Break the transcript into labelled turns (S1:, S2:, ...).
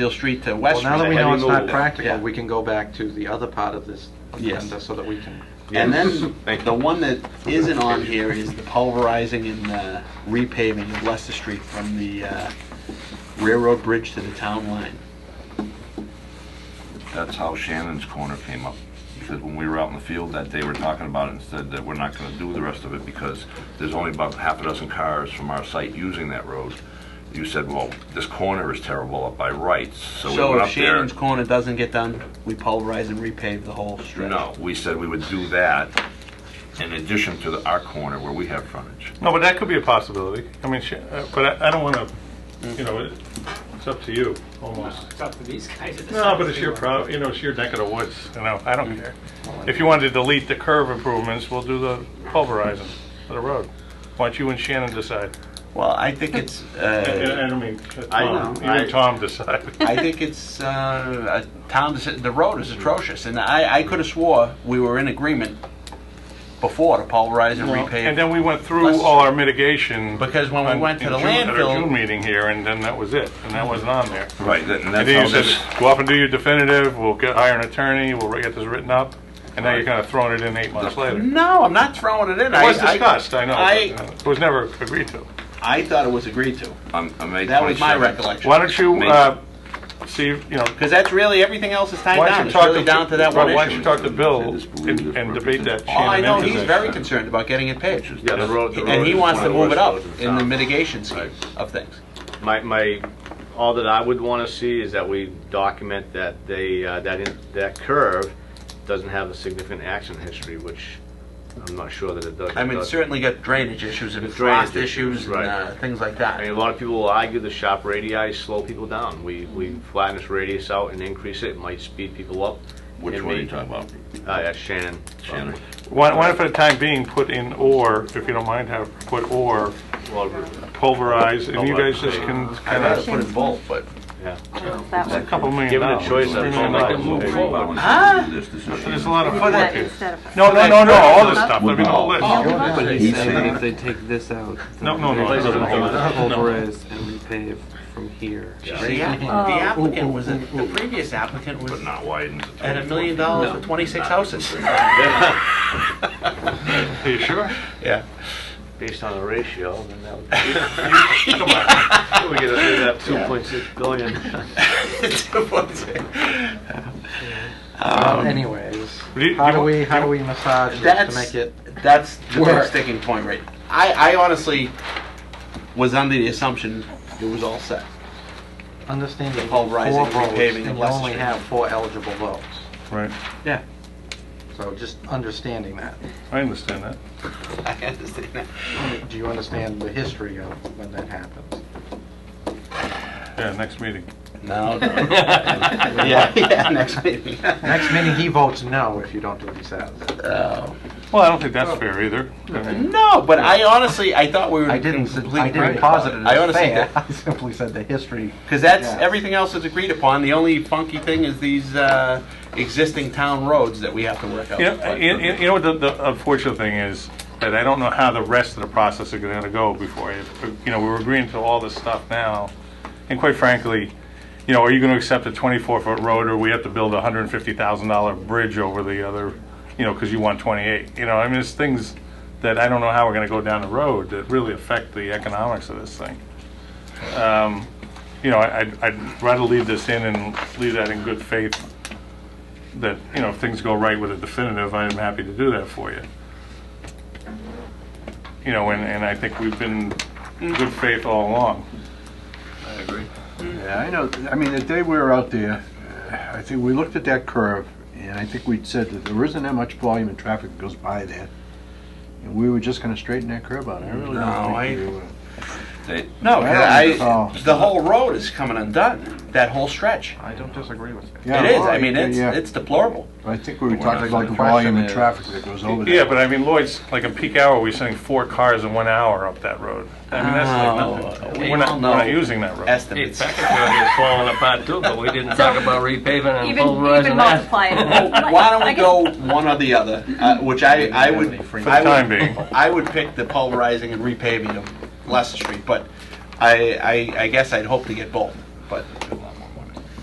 S1: Steel Street to West
S2: Well,
S1: Street.
S2: now that we know it's not
S3: Removable.
S2: practical,
S1: Yeah.
S2: we can go back to the other part of this
S1: Yes.
S2: agenda so that we can,
S3: Yes.
S4: And then,
S3: Thank
S4: the
S3: you.
S4: one that isn't on here is the pulverizing and uh, repaving of Leicester Street from the uh, railroad bridge to the town line.
S5: That's how Shannon's corner came up. Because when we were out in the field that day, we were talking about it and said that we're not gonna do the rest of it because there's only about half a dozen cars from our site using that road. You said, well, this corner is terrible up by rights, so we
S4: So
S5: went
S4: if
S5: up there.
S4: Shannon's corner doesn't get done, we pulverize and repave the whole stretch.
S5: No, we said we would do that in addition to the- our corner where we have frontage.
S3: No, but that could be a possibility. I mean, sh- uh, but I, I don't want to, you know, it- it's up to you, almost.
S6: It's up to these guys to decide.
S3: No, but it's your prob, you know, it's your neck of the woods, you know, I
S4: Mm.
S3: don't care. If you want to delete the curve improvements, we'll do the pulverizing of the road. Why don't you and Shannon decide?
S4: Well, I think it's,
S3: I
S4: uh,
S3: I don't mean,
S4: I
S3: Tom,
S4: know,
S3: you and
S4: I-
S3: Tom decide.
S4: I think it's, uh, uh, Tom, said the road is atrocious, and I, I could have swore we were in agreement before to pulverize and
S3: And
S4: repave.
S3: then we went through all our mitigation.
S4: Because when we
S3: on-
S4: went to
S3: in
S4: the
S3: June- At our
S4: landfill-
S3: June meeting here, and then that was it, and that wasn't on there.
S5: Right, that- and
S3: And
S5: that's
S3: then
S5: how
S3: you said,
S5: this,
S3: go off and do your definitive, we'll get, hire an attorney, we'll get this written up, and now you're kind of throwing it in eight months later. It
S4: No, I'm not throwing it in. I
S3: was
S4: I-
S3: discussed, I know,
S4: I,
S3: but, uh, it was never agreed to.
S4: I thought it was agreed to.
S5: on um, on May 27th.
S4: That was my recollection.
S3: Why don't you,
S5: May-
S3: uh, see, you know,
S4: Because that's really, everything else is tied
S3: why don't
S4: down,
S3: you
S4: it's
S3: talk to...
S4: really down to that one
S3: well, Why don't
S4: issue.
S3: you talk to Bill
S5: They just believe
S3: and
S5: this
S3: and debate that
S5: represents-
S3: Shannon
S4: All Oh, I know, he's
S3: intersection.
S4: very concerned about getting it paved.
S7: Yeah, the road, the road.
S4: And he
S7: is
S4: wants
S7: one
S4: to
S7: of the
S4: move it
S7: worst
S4: up
S7: roads
S4: in the
S7: town.
S4: mitigation scheme of things.
S7: My, my, all that I would want to see is that we document that they, uh, that, in- that curve doesn't have a significant accident history, which I'm not sure that it does.
S4: I mean, it's
S7: does.
S4: certainly got drainage issues and
S7: Drainage
S4: frost issues
S7: issues,
S4: and
S7: right.
S4: uh, things like
S7: I mean,
S4: that.
S7: a lot of people will argue the shop radii slow people down. We, we
S5: Mm-hmm.
S7: flatten this radius out and increase it, it might speed people up.
S5: Which
S7: It
S5: one are
S7: may-
S5: you talking about,
S7: Uh, yeah, Shannon.
S5: Shannon?
S3: Why why not for the time being, put in or, if you don't mind, have, put or
S7: Well,
S3: pulverize, and you guys just can
S5: I'd
S3: kind
S5: rather
S3: of,
S5: put in both, but
S7: yeah.
S8: That
S3: it's a
S8: one.
S3: couple million
S7: Given a
S3: dollars.
S7: choice,
S3: three
S7: I'd
S3: million
S7: say
S3: dollars.
S7: like a move forward.
S3: There's a lot of footwork
S8: That
S3: here.
S8: instead of.
S3: No, no, no, no, all this stuff, I mean, all this.
S9: Oh, But
S5: He's
S9: he's saying that
S5: saying-
S9: if they take this out,
S3: No, no, no,
S7: Place
S3: no,
S7: of
S3: no,
S9: then
S3: no.
S9: Alvarez and repave from here.
S2: uh,
S4: The app- the applicant was, a- the previous applicant was
S5: but not widened. to
S4: at a
S5: 24.
S4: million dollars for 26 houses.
S3: Are you sure?
S4: Yeah.
S7: Based on the ratio, then that would be. We get a, two point six billion.
S2: Um,
S4: Um,
S2: anyways,
S3: Do you-
S2: how
S3: you
S2: do
S3: want-
S2: we, how do we massage this to
S4: That's,
S2: make it?
S4: that's the big
S2: work.
S4: sticking point, right? I, I honestly was under the assumption it was all set.
S2: Understand
S4: The
S2: that
S4: whole
S2: four
S4: rising
S2: votes,
S4: repaving of
S2: and you
S4: Leicester
S2: only
S4: Street.
S2: have four eligible votes.
S3: Right,
S4: Yeah.
S2: So just understanding that.
S3: I understand that.
S4: I understand that.
S2: Do you understand the history of when that happens?
S3: Yeah, next meeting.
S4: No. no. Yeah, yeah, next meeting.
S2: Next meeting, he votes no if you don't do what he says.
S4: Oh.
S3: Well, I don't think that's fair either. I mean,
S4: No, but I honestly, I thought we were.
S2: I didn't, s-
S4: completely
S2: I didn't
S4: agreed about
S2: posit it
S4: I
S2: as
S4: honestly
S2: fair. I simply said the history.
S4: Because that's,
S2: Yeah.
S4: everything else is agreed upon. The only funky thing is these uh, existing town roads that we have to work out.
S3: You know, you- you- you know what the- the unfortunate thing is, that I don't know how the rest of the process is gonna go before, it- you know, we're agreeing to all this stuff now, and quite frankly, you know, are you gonna accept a 24-foot road, or we have to build a $150,000 bridge over the other, you know, because you want 28? You know, I mean, it's things that I don't know how we're gonna go down the road that really affect the economics of this thing. Um, You know, I- I'd I'd rather leave this in and leave that in good faith that, you know, if things go right with a definitive, I am happy to do that for you. You know, and, and I think we've been good faith all along.
S10: Yeah, I know, I mean, the day we were out there, uh, I think we looked at that curve, and I think we'd said that there isn't that much volume and traffic that goes by there, and we were just gonna straighten that curve out, I really
S4: No,
S10: don't
S4: I-
S10: think we were.
S5: They-
S4: No,
S10: I don't
S4: I,
S10: recall.
S4: the whole road is coming undone, that whole stretch.
S2: I don't disagree with you.
S10: Yeah,
S4: It is,
S10: well,
S4: I mean, it's,
S10: yeah.
S4: it's deplorable.
S10: I think we were
S5: We're
S10: talking
S5: not-
S10: about the
S2: the question
S10: volume and
S2: is-
S10: traffic that goes over there.
S3: Yeah, but I mean, Lloyd's, like in peak hour, we're sending four cars in one hour up that road. I mean, that's like
S4: Oh,
S3: nothing.
S4: we
S3: We're not,
S4: all
S3: we're
S4: know
S3: not using that road.
S4: Estimates.
S7: It's falling apart too, but we didn't
S8: talk about
S7: repaving
S8: Even, even multiply it.
S4: Well, Why don't we go one or the other, uh, which I, I would.
S2: For the
S3: For the
S4: I
S3: time
S4: would-
S3: being.
S4: I would pick the pulverizing and repaving of Leicester Street, but I, I, I guess I'd hope to get both, but